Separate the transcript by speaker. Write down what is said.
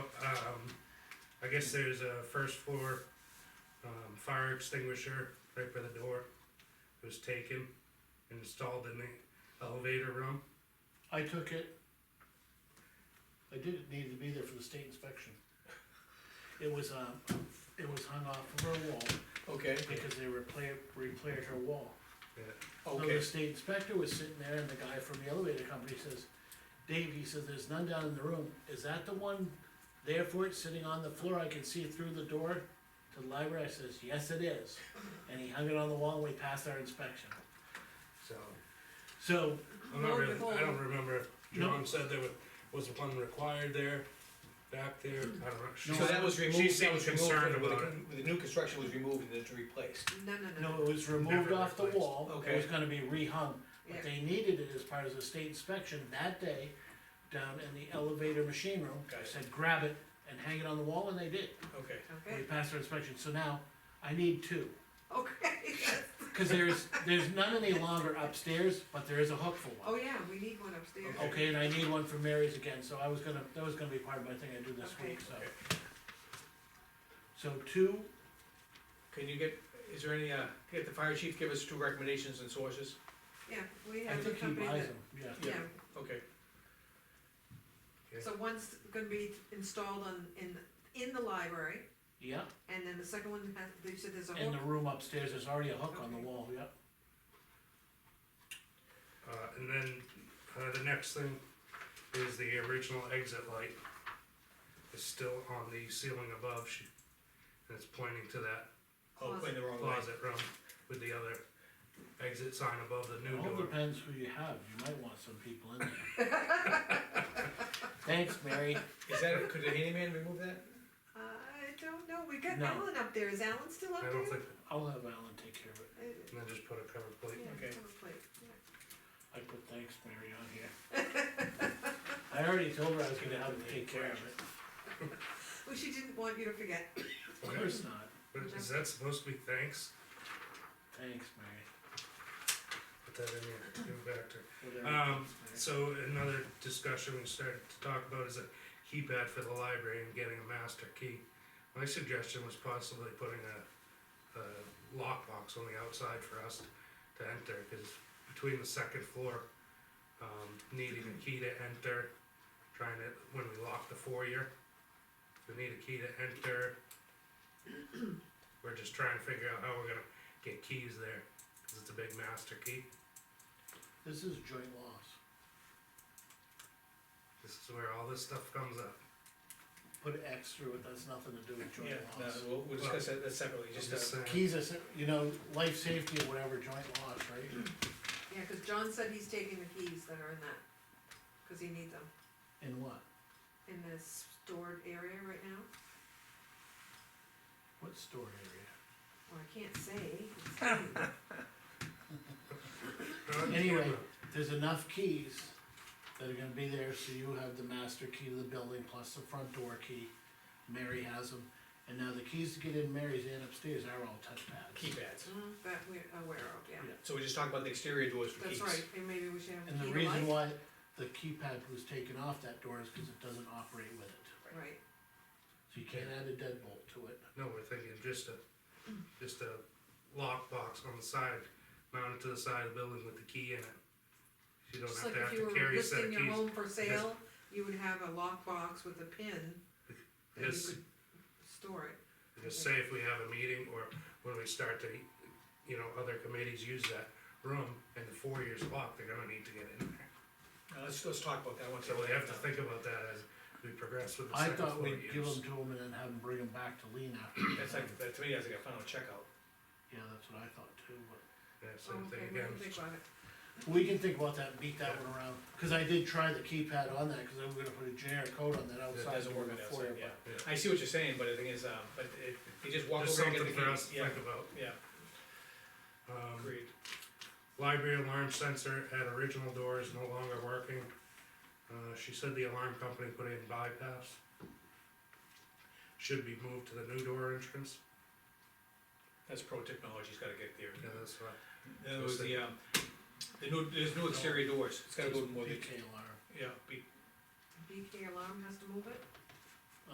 Speaker 1: Um, guess there's a first floor, um, fire extinguisher right by the door. It was taken and installed in the elevator room.
Speaker 2: I took it. I didn't need to be there for the state inspection. It was, um, it was hung off of her wall
Speaker 3: Okay,
Speaker 2: because they repaired, repaired her wall.
Speaker 1: Yeah,
Speaker 2: So the
Speaker 3: okay,
Speaker 2: state inspector was sitting there and the guy from the elevator company says, Dave, he says, there's none down in the room, is that the one there for it, sitting on the floor, I can see it through the door to the library, I says, yes, it is. And he hung it on the wall and we passed our inspection,
Speaker 1: so,
Speaker 2: so,
Speaker 1: I'm not
Speaker 4: Lo and
Speaker 1: really,
Speaker 4: behold.
Speaker 1: I don't remember, if
Speaker 2: No.
Speaker 1: John said there was, was one required there, back there, I don't know. She
Speaker 3: so
Speaker 1: said-
Speaker 3: that was removed,
Speaker 1: She
Speaker 3: that
Speaker 1: seemed
Speaker 3: was removed,
Speaker 1: concerned
Speaker 3: when the-
Speaker 1: about
Speaker 3: when the new construction was removed and it's replaced.
Speaker 4: No, no, no,
Speaker 2: no, it was removed
Speaker 1: Never
Speaker 2: off the
Speaker 1: replaced.
Speaker 2: wall, it was
Speaker 3: Okay.
Speaker 2: gonna be rehung. But
Speaker 4: yeah,
Speaker 2: they needed it as part of the state inspection that day, down in the elevator machine room, I
Speaker 3: Got it.
Speaker 2: said, grab it and hang it on the wall, and they did.
Speaker 3: Okay,
Speaker 2: We
Speaker 4: okay,
Speaker 2: passed our inspection, so now I need two.
Speaker 4: okay,
Speaker 2: Cause there's, there's none any longer upstairs, but there is a hook for
Speaker 4: oh
Speaker 2: one.
Speaker 4: yeah, we need one upstairs.
Speaker 3: Okay.
Speaker 2: Okay, and I need one for Mary's again, so I was gonna, that was gonna be part of my thing I do this
Speaker 4: Okay.
Speaker 2: week, so.
Speaker 3: Okay.
Speaker 2: So two,
Speaker 3: can you get, is there any, uh, get the fire chief, give us two recommendations and sources?
Speaker 4: Yeah, we
Speaker 2: I
Speaker 4: have a
Speaker 2: think he
Speaker 4: company
Speaker 2: buys
Speaker 4: that,
Speaker 2: them, yeah.
Speaker 4: yeah,
Speaker 3: Okay,
Speaker 1: Yeah.
Speaker 4: so one's gonna be installed on, in, in the library,
Speaker 2: Yeah,
Speaker 4: and then the second one has, they said there's a
Speaker 2: in
Speaker 4: whole,
Speaker 2: the room upstairs, there's already a hook on the
Speaker 4: Okay.
Speaker 2: wall, yeah.
Speaker 1: Uh, and then, uh, the next thing is the original exit light is still on the ceiling above, she, and it's pointing to that
Speaker 3: oh,
Speaker 4: Closet.
Speaker 3: in the wrong way.
Speaker 1: closet room with the other exit sign above the
Speaker 2: It
Speaker 1: new
Speaker 2: all
Speaker 1: door.
Speaker 2: depends who you have, you might want some people in there. Thanks, Mary.
Speaker 3: Is that, could the handyman remove that?
Speaker 4: I don't know, we got
Speaker 2: No.
Speaker 4: Alan up there, is Alan still up
Speaker 1: I
Speaker 4: there?
Speaker 1: don't think,
Speaker 2: I'll have Alan take care of it.
Speaker 4: Uh,
Speaker 1: and then just put a cover plate.
Speaker 4: yeah,
Speaker 3: Okay.
Speaker 4: cover plate, yeah.
Speaker 2: I put thanks, Mary, on here. I already told her I was gonna help her take care of it.
Speaker 4: Well, she didn't want you to forget,
Speaker 2: Of course not.
Speaker 1: But is that supposed to be thanks?
Speaker 2: Thanks, Mary.
Speaker 1: Put that in there, give it back to her.
Speaker 2: Whatever.
Speaker 1: Um,
Speaker 2: Thanks,
Speaker 1: so another discussion we started to talk about is a keypad for the library and getting a master key. My suggestion was possibly putting a, a lockbox on the outside for us to enter, cause between the second floor, um, needing a key to enter, trying to, when we lock the foyer, we need a key to enter. We're just trying to figure out how we're gonna get keys there, cause it's a big master key.
Speaker 2: Mary. This is joint loss.
Speaker 1: This is where all this stuff comes up.
Speaker 2: Put an X through it, that's nothing to do with
Speaker 3: Yeah,
Speaker 2: joint
Speaker 3: no,
Speaker 2: loss.
Speaker 3: we'll, we'll discuss that that separately, just,
Speaker 1: Just
Speaker 3: uh,
Speaker 1: saying.
Speaker 2: Keys are, se- you know, life safety or whatever, joint loss, right?
Speaker 4: yeah, cause John said he's taking the keys that are in that, cause he needs them
Speaker 2: And what?
Speaker 4: in this stored area right now.
Speaker 2: What store area?
Speaker 4: Well, I can't say.
Speaker 1: Uh,
Speaker 2: Anyway. There's enough keys that are gonna be there, so you have the master key to the building plus the front door key. Mary has them, and now the keys to get in Mary's and upstairs are all touchpads.
Speaker 3: keypads.
Speaker 4: Mm, That we're aware of, yeah.
Speaker 2: Yeah.
Speaker 3: So we just talked about the exterior doors for keys.
Speaker 4: That's right, and maybe we should have
Speaker 2: And
Speaker 4: a
Speaker 2: the
Speaker 4: key to
Speaker 2: reason
Speaker 4: life.
Speaker 2: why the keypad was taken off that door is because it doesn't operate with it,
Speaker 4: Right,
Speaker 2: so you can't add a deadbolt to it.
Speaker 1: No, we're thinking just a, just a lockbox on the side, mounted to the side of the building with the key in it. You don't
Speaker 4: just
Speaker 1: have to
Speaker 4: like
Speaker 1: have
Speaker 4: if you
Speaker 1: to
Speaker 4: were
Speaker 1: carry a set of
Speaker 4: listing your
Speaker 1: keys.
Speaker 4: home for sale, you would have a lockbox with a pin that you
Speaker 1: Yes.
Speaker 4: could store it.
Speaker 1: Just say if we have a meeting or when we start to, you know, other committees use that room and the four years locked, they're gonna need to get in there.
Speaker 3: Now, let's, let's talk about that one.
Speaker 1: So we have to think about that as we progress with the
Speaker 2: I
Speaker 1: second floor
Speaker 2: thought we'd give
Speaker 1: use.
Speaker 2: them to him and then have him bring them back to Lean after.
Speaker 3: That's like, that to me, that's like a final checkout.
Speaker 2: Yeah, that's what I thought too, but
Speaker 1: Yeah,
Speaker 4: Oh,
Speaker 1: same
Speaker 4: okay,
Speaker 1: thing
Speaker 4: we
Speaker 1: again.
Speaker 4: can think about it.
Speaker 2: we can think about that and beat that one around, cause I did try the keypad on that, cause I was gonna put a generic code on that outside.
Speaker 3: doesn't
Speaker 2: door
Speaker 3: work on the
Speaker 2: before,
Speaker 3: outside, yeah.
Speaker 2: but-
Speaker 1: Yeah.
Speaker 3: I see what you're saying, but the thing is, um, but it, you just walk
Speaker 1: Just
Speaker 3: over and get
Speaker 1: something
Speaker 3: the
Speaker 1: for us
Speaker 3: keys.
Speaker 1: to
Speaker 3: Yeah,
Speaker 1: think about.
Speaker 3: yeah,
Speaker 1: Um,
Speaker 3: agreed.
Speaker 1: Library alarm sensor at original door is no longer working. Uh, she said the alarm company put in bypass. Should be moved to the new door entrance.
Speaker 3: That's pro technology's gotta get there.
Speaker 1: Yeah, that's right.
Speaker 3: In other words, the, um, the new, there's no exterior doors, it's gotta go more than,
Speaker 2: BK alarm.
Speaker 3: yeah, be,
Speaker 4: BK alarm has to move it,